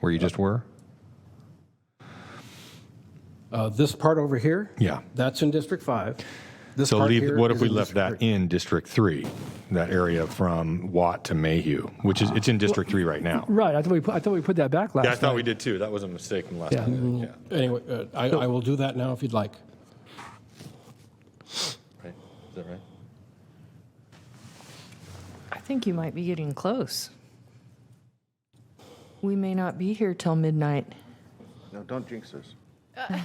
where you just were? Uh, This part over here? Yeah. That's in District 5. This So part leave, here what if is we in left District that in District Three, that area from Watt to Mayhew, which is, it's in District Three right now? Right, I thought we, put- I thought we put that back last Yeah, time. I thought we did too. That was a mistake from last Yeah. time. Yeah. three. Anyway, uh, I I will do that now if you'd like. Right? Is that right? I think you might be getting close. We may not be here till midnight. No, don't jinx us.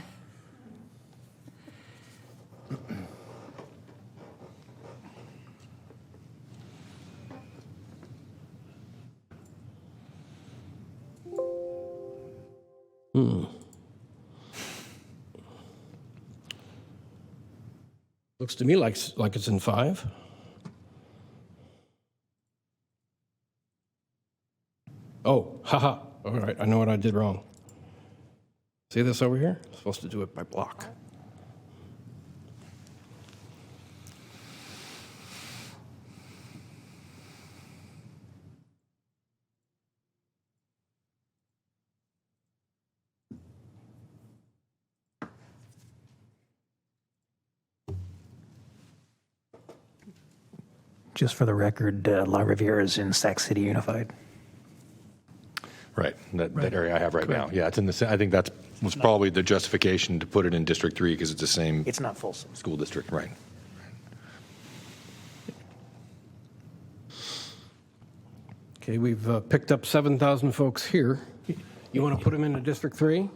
Looks to me like, s- like it's in 5. Oh, haha, all right, I know what I did wrong. See this over here? Supposed to do it by block. Just for the record, uh, La Riviera is in Sac City Unified. Right. That, that area I have right now. Yeah, it's in the, sa- I think that's, was probably the justification to put it in District Three because it's the same It's not Folsom. school district, right? Okay, we've uh, picked up 7,000 folks here. You want to put them into District 3?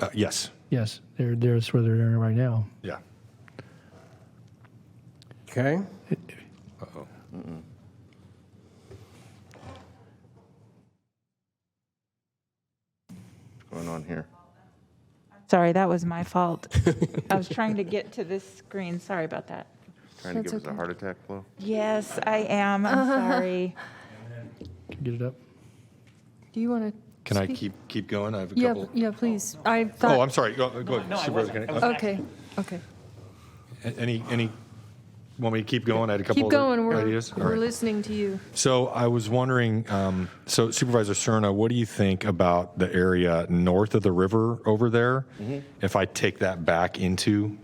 Uh, yes. Yes, they're, there's where they're in right now. Yeah. Okay. What's going on here? Sorry, that was my fault. I was trying to get to this screen. Sorry about that. Trying to That's give us a okay. heart attack, Flo? Yes, I am. I'm sorry. Can you Get it up. Do you want to? Can I keep, keep going? I have a Yeah, couple. yeah, please. I thought. Oh, I'm sorry. Go, go ahead. Supervisor Kennedy. Okay, okay. Any, any, want me to keep going? I had a couple Keep other going. We're, ideas. All we're right. listening to you. So I was wondering, um, so Supervisor Cerna, what do you think about the area north of the river over there? If I take that back into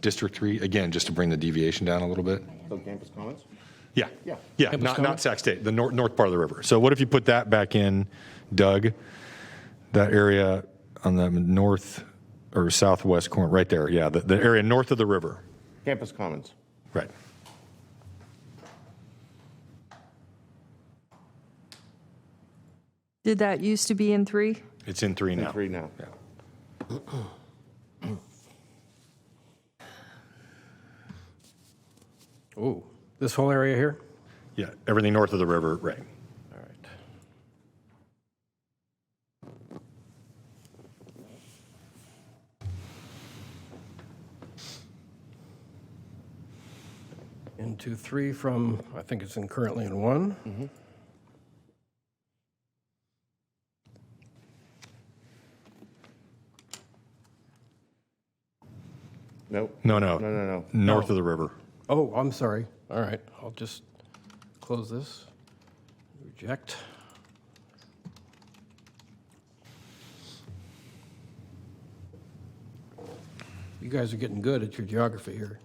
District Three, again, just to bring the deviation down a little bit? So campus comments? Yeah. Yeah. Yeah, Campus not, not Commons? Sac State, the north, north part of the river. So what if you put that back in, Doug? That area on the north or southwest corner, right there, yeah, the, the area north of the river, Campus comments. right? Did that used to be in three? It's in three now. Three now. Yeah. Oh, this whole area here? Yeah, everything north of the river, right. All right. into three from, I think it's in currently in one. Nope. No, no. No, no, no. North of the river. Oh, I'm sorry. All right, I'll just close this. Reject. You guys are getting good at your geography here.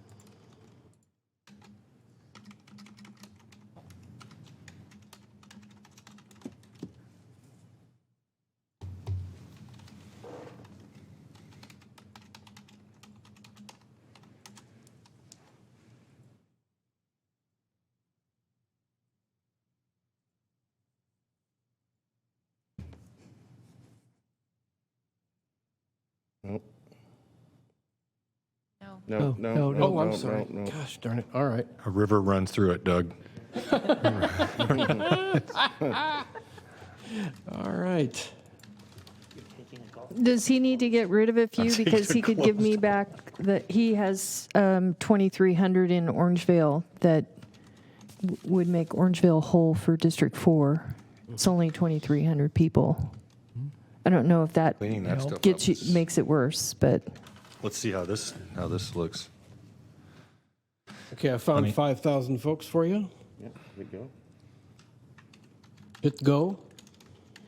Nope. No. No, no, no, Oh, no, I'm no, sorry. no. Gosh darn it. All right. A river runs through it, Doug. All right. Does he need to get rid of a few because he could give me back that he has um, 2,300 in Orangevale that w- would make Orangevale whole for District 4. It's only 2,300 people. I don't know if that Hmm. Cleaning that stuff up. gets you, makes it worse, but Let's see how this, how this looks. Okay, I found 5,000 folks for you. Yeah, there we go. Hit go.